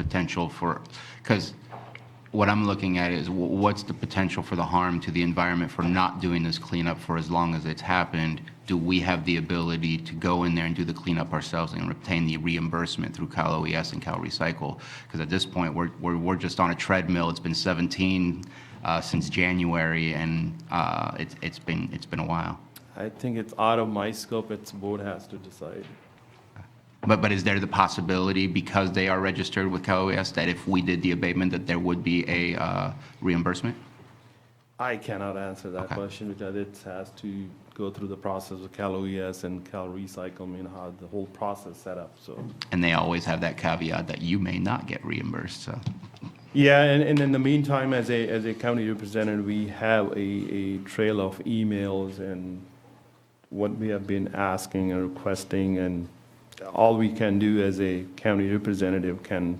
potential for, because what I'm looking at is wh- what's the potential for the harm to the environment for not doing this cleanup for as long as it's happened? Do we have the ability to go in there and do the cleanup ourselves and obtain the reimbursement through Cal OES and Cal Recycle? Because at this point, we're, we're, we're just on a treadmill. It's been 17 uh, since January, and uh, it's, it's been, it's been a while. I think it's out of my scope, it's board has to decide. But, but is there the possibility, because they are registered with Cal OES, that if we did the abatement, that there would be a uh, reimbursement? I cannot answer that Okay. question because it has to go through the process of Cal OES and Cal Recycle, I mean, how the whole process set up, so. And they always have that caveat that you may not get reimbursed, so. Yeah, and, and in the meantime, as a, as a county representative, we have a, a trail of emails and what we have been asking and requesting, and all we can do as a county representative can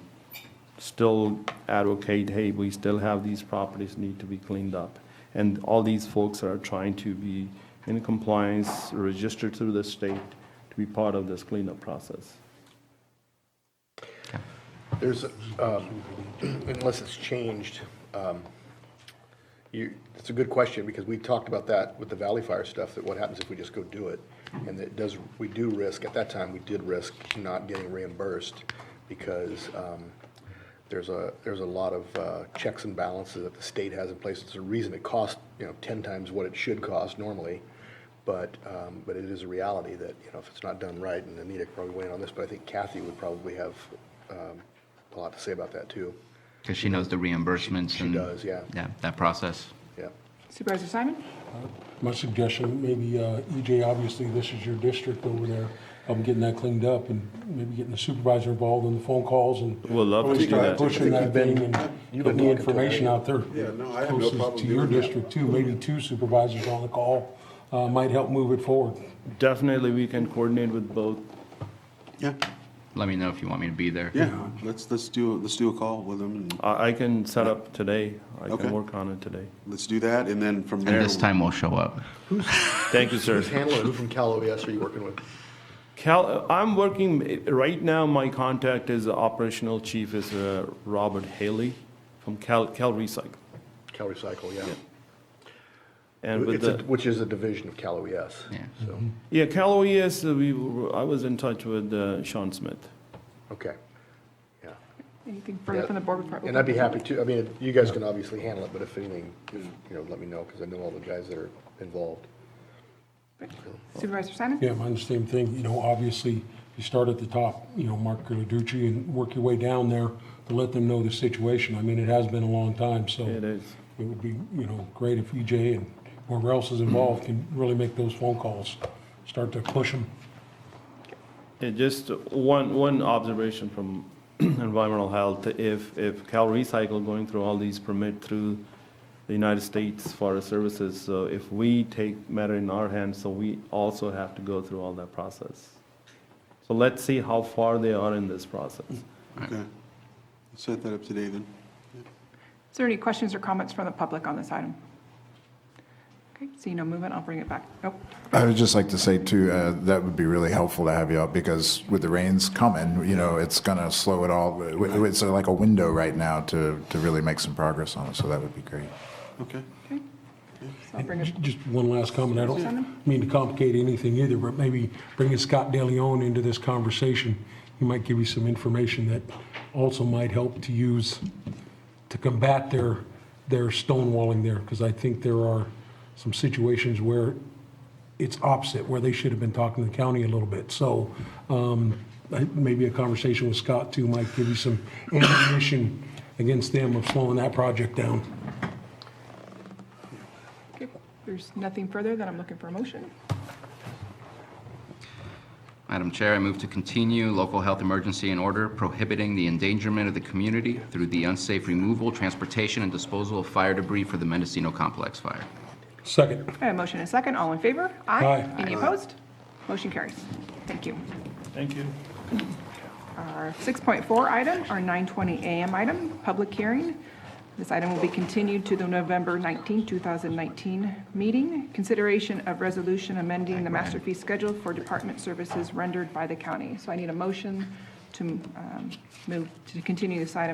still advocate, hey, we still have these properties need to be cleaned up. And all these folks are trying to be in compliance, registered through the state, to be part of this cleanup process. There's, um, unless it's changed, um, you, it's a good question, because we talked about that with the Valley Fire stuff, that what happens if we just go do it? And that does, we do risk, at that time, we did risk not getting reimbursed, because um, there's a, there's a lot of uh, checks and balances that the state has in place. It's a reason it costs, you know, 10 times what it should cost normally, but, um, but it is a reality that, you know, if it's not done right, and Anita could probably weigh in on this, but I think Kathy would probably have um, a lot to say about that, too. Because she knows the reimbursements She and. does, yeah. that process. Yeah. Supervisor Simon? My suggestion, maybe, uh, EJ, obviously, this is your district over there, um, getting that cleaned up and maybe getting the supervisor involved in the phone calls and. We'll love to always do start that. Pushing I that think you've thing been- and you've been getting the talking to her. information out there. Yeah, no, I have no closest problem To your doing that. district too, maybe two supervisors on the call, uh, might help move it forward. Definitely, we can coordinate with both Yeah, Let me know if you want me to be there. yeah, let's, let's do, let's do a call with them, and I, I can set up today. I Okay. can work on it today. let's do that, and then from there. And this time we'll show up. Thank you, sir. Who's handling, it? who from Cal OES are you working with? Cal, I'm working, right now, my contact is the operational chief is uh, Robert Haley from Cal, Cal Recycle. Cal Recycle, yeah. And with It's a- the, Which is a division of Cal OES. Yeah. So, yeah, Mm-hmm. Cal OES, uh, we, were- I was in touch with uh, Sean Smith. okay, yeah. Anything further from the board before? I And I'd be open happy to, I mean, you guys can obviously handle it, but if anything, if, you know, let me know, because I know all the guys that are involved. Supervisor Simon? Yeah, mine's the same thing, you know, obviously, you start at the top, you know, Mark Carducci, and work your way down there to let them know the situation. I mean, it has been a long time, so. It is. It would be, you know, great if EJ and whoever else is involved can really make those phone calls, start to push them. Yeah, Uh, just one, one observation from environmental health, if, if Cal Recycle going through all these permit through the United States Forest Services, so if we take matter in our hands, so we also have to go through all that process. So let's see how far they are in this process. Okay. Set that up today then. Is there any questions or comments from the public on this item? Okay, seeing no movement, I'll bring it back. Nope. I would just like to say too, uh, that would be really helpful to have you up because with the rains coming, you know, it's gonna slow it all. It's uh, like a window right now to, to really make some progress on it, so that would be great. Okay. Okay. So I'll bring it, Just one last comment, I Simon? don't mean to complicate anything either, but maybe bringing Scott DeLeon into this conversation, he might give you some information that also might help to use to combat their, their stonewalling there, because I think there are some situations where it's opposite, where they should have been talking to the county a little bit. So um, I- maybe a conversation with Scott too might give you some ammunition against them of slowing that project down. okay, there's nothing further, then I'm looking for a motion. Madam Chair, I move to continue local health emergency in order prohibiting the endangerment of the community through the unsafe removal, transportation, and disposal of fire debris for the Mendocino Complex fire. Second. I have a motion and a second, all in favor? Aye. Any opposed? Motion carries. Thank you. Thank you. Our 6.4 item, our 9:20 a.m. item, public hearing. This item will be continued to the November 19, 2019 meeting. Consideration of resolution amending the master fee schedule for department services rendered by the county. So I need a motion to um, move, to continue this item